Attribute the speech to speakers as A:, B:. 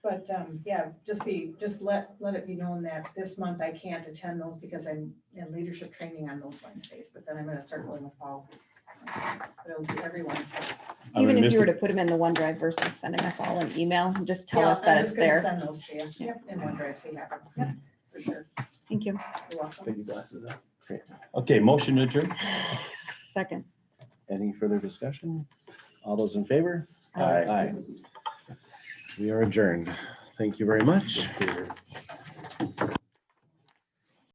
A: But, um, yeah, just be, just let, let it be known that this month I can't attend those because I'm in leadership training on those Wednesdays, but then I'm gonna start going with Paul. But It'll be every Wednesday.
B: I would
C: Even if
B: miss
C: you were
B: it.
C: to put them in the OneDrive versus sending us all an email, just tell
A: Yeah,
C: us
A: I'm
C: that it's
A: just gonna
C: there.
A: Send those to you, yep, in OneDrive, so you have them, yep, for sure.
C: Thank you.
A: You're welcome.
D: Take your glasses off. Great.
B: Okay, motion adjourned.
C: Second.
D: Any further discussion? All those in favor?
B: Aye.
D: Aye. We are adjourned. Thank you very much.